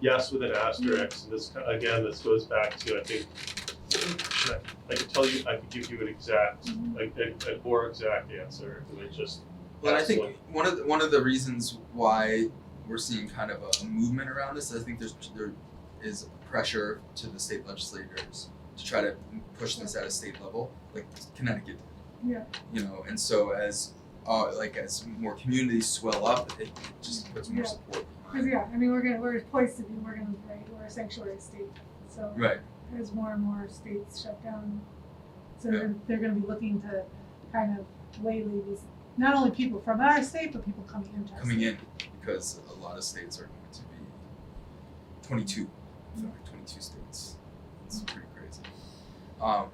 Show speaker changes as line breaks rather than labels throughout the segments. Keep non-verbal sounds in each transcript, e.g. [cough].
yes with an asterisk, and this, again, this goes back to, I think, should I, I could tell you, I could give you an exact, like, a, a more exact answer, it would just,
But I think
Absolutely.
one of the, one of the reasons why we're seeing kind of a, a movement around this, I think there's there is pressure to the state legislators to try to push this at a state level, like Connecticut. did.
Yeah.
You know, and so as uh, like as more communities swell up, it, it just puts more
Yeah.
support
Cause
behind.
yeah, I mean, we're gonna, we're poised to be, we're gonna, right, we're a sanctuary state, so
Right.
as more and more states shut down. So
Yeah.
they're, they're gonna be looking to kind of waylay these, not only people from our state, but people coming into our state.
Coming in because a lot of states are going to be twenty two. I feel like twenty two states. It's pretty crazy. Um,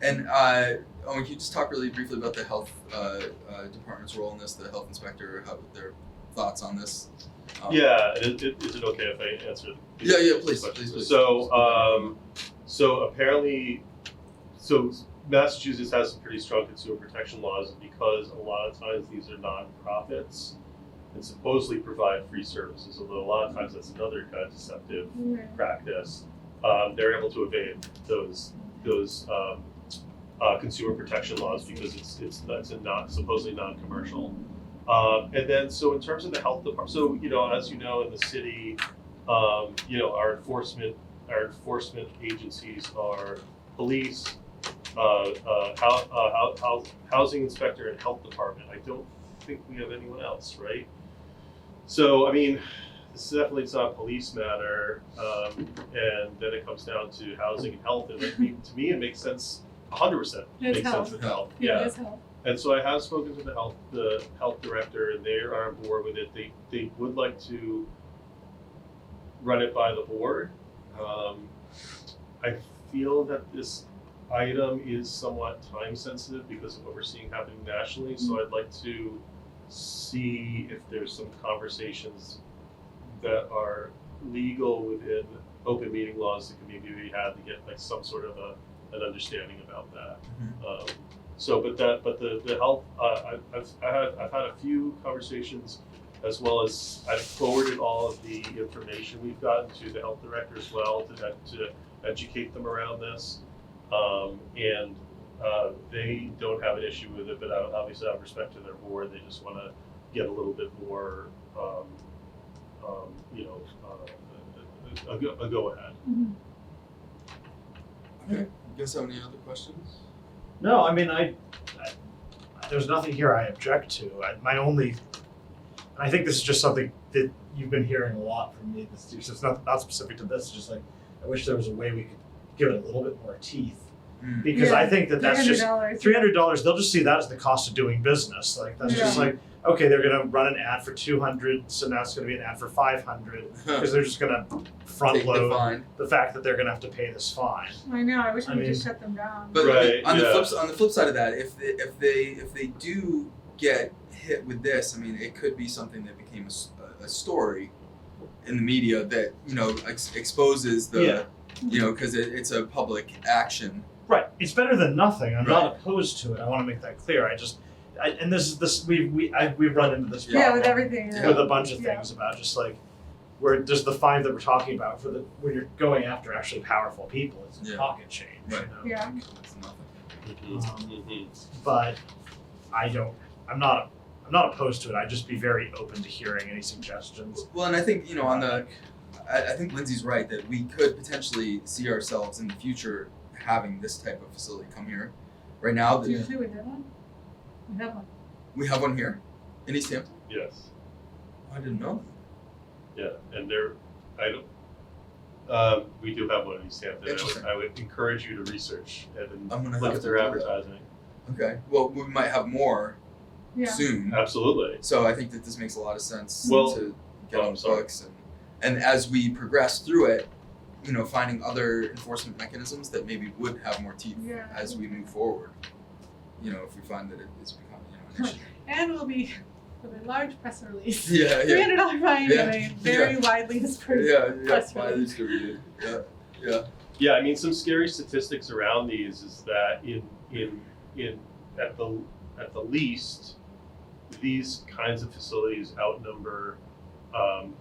and uh, Owen, can you just talk really briefly about the health uh, uh, department's role in this, the health inspector, how their thoughts on this? Um,
yeah, is, is it okay if I answer? the-
Yeah, yeah, please,
question?
please, please.
So, um, so apparently, so Massachusetts has some pretty strong consumer protection laws because a lot of times these are nonprofits and supposedly provide free services, although a lot of times that's another contraceptive
Right.
practice, um, they're able to evade those those um, uh, consumer protection laws because it's it's that's a not supposedly non-commercial. Um, and then so in terms of the health department, so you know as you know in the city, um, you know our enforcement our enforcement agencies are police. Uh, uh, hou- uh, hou- hou- housing inspector and health department. I don't think we have anyone else, right? So, I mean, this is definitely it's not a police matter, um, and then it comes down to housing and health. And it, to me, it makes sense. 100%
It's
makes
health.
sense with health.
Yeah, that's how,
And so I have spoken to the health the health director, and they are on board with it. They they would like to run it by the board. Um, I feel that this item is somewhat time sensitive because of what we're seeing happening nationally. So I'd like to see if there's some conversations that are legal within open meeting laws that can maybe be had to get like some sort of a an understanding about that.
mm-hmm.
Um, so, but that, but the, the health, uh, I, I've, I had, I've had a few conversations as well as I've forwarded all of the information we've gotten to the health director as well to, to educate them around this. Um, and, uh, they don't have an issue with it, but I- obviously out of respect to their board, they just wanna get a little bit more, um, um, you know, uh, a, a- a, go- a go ahead.
Mhm.
Okay. You guys have any other questions?
No, I mean, I, I there's nothing here I object to. I, my only, and I think this is just something that you've been hearing a lot from me. This so it's not not specific to this. It's just like I wish there was a way we could give it a little bit more teeth
[laughs] Mm.
because I
Yeah,
think that that's just
$300.
three hundred dollars. They'll just see that as the cost of doing business. Like that's just
Yeah.
like okay, they're gonna run an ad for two hundred, so now it's gonna be an ad for five hundred because they're just gonna front
Take the
load
fine.
the fact that they're gonna have to pay this fine.
I know, I wish
I
we could just
mean-
shut them down.
But
Right,
on the
yeah.
flip s- on the flip side of that, if they, if they if they do get hit with this, I mean, it could be something that became a s- a, a story in the media that you know ex- exposes the
Yeah.
you know because it, it's a public action.
Right. It's better than nothing. I'm not opposed to it. I want to make that clear. I just, I, and this is this we we I, we've run into this
Yeah,
problem
with everything, yeah.
with a bunch of
Yeah.
things about just like where there's the fine that we're talking about for the when you're going after actually powerful people. It's
Yeah.
a pocket change. you
Right.
know?
Yeah.
It's nothing.
Mhm.
Mhm.
But I don't. I'm not. I'm not opposed to it. I'd just be very open to hearing any suggestions.
Well, and I think you know on the, I, I think Lindsay's right that we could potentially see ourselves in the future having this type of facility come here. Right now,
Do you
the,
see we did one? We have one.
we have one here in East Hampton.
Yes.
I didn't know.
Yeah, and there, I don't, um, we do have one in East Hampton. I
Interesting.
would, I would encourage you to research and
I'm gonna
look
have
at
to
their
do that.
advertising.
Okay. Well, we might have more
Yeah.
soon.
Absolutely.
So I think that this makes a lot of sense
Well-
to get
Oh,
on
I'm
the
sorry.
books and and as we progress through it, you know, finding other enforcement mechanisms that maybe would have more teeth
Yeah.
as we move forward. You know, if we find that it is becoming you know, an
And we'll be with a large press release.
issue. yeah,
Three
yeah.
hundred dollar fine
Yeah.
and a very widely dispersed.
Yeah, yeah,
press
why
release.
these are you- yeah,
Yeah, I mean, some scary statistics around these is that in, in, in, at the, at the least, these kinds of facilities outnumber, um,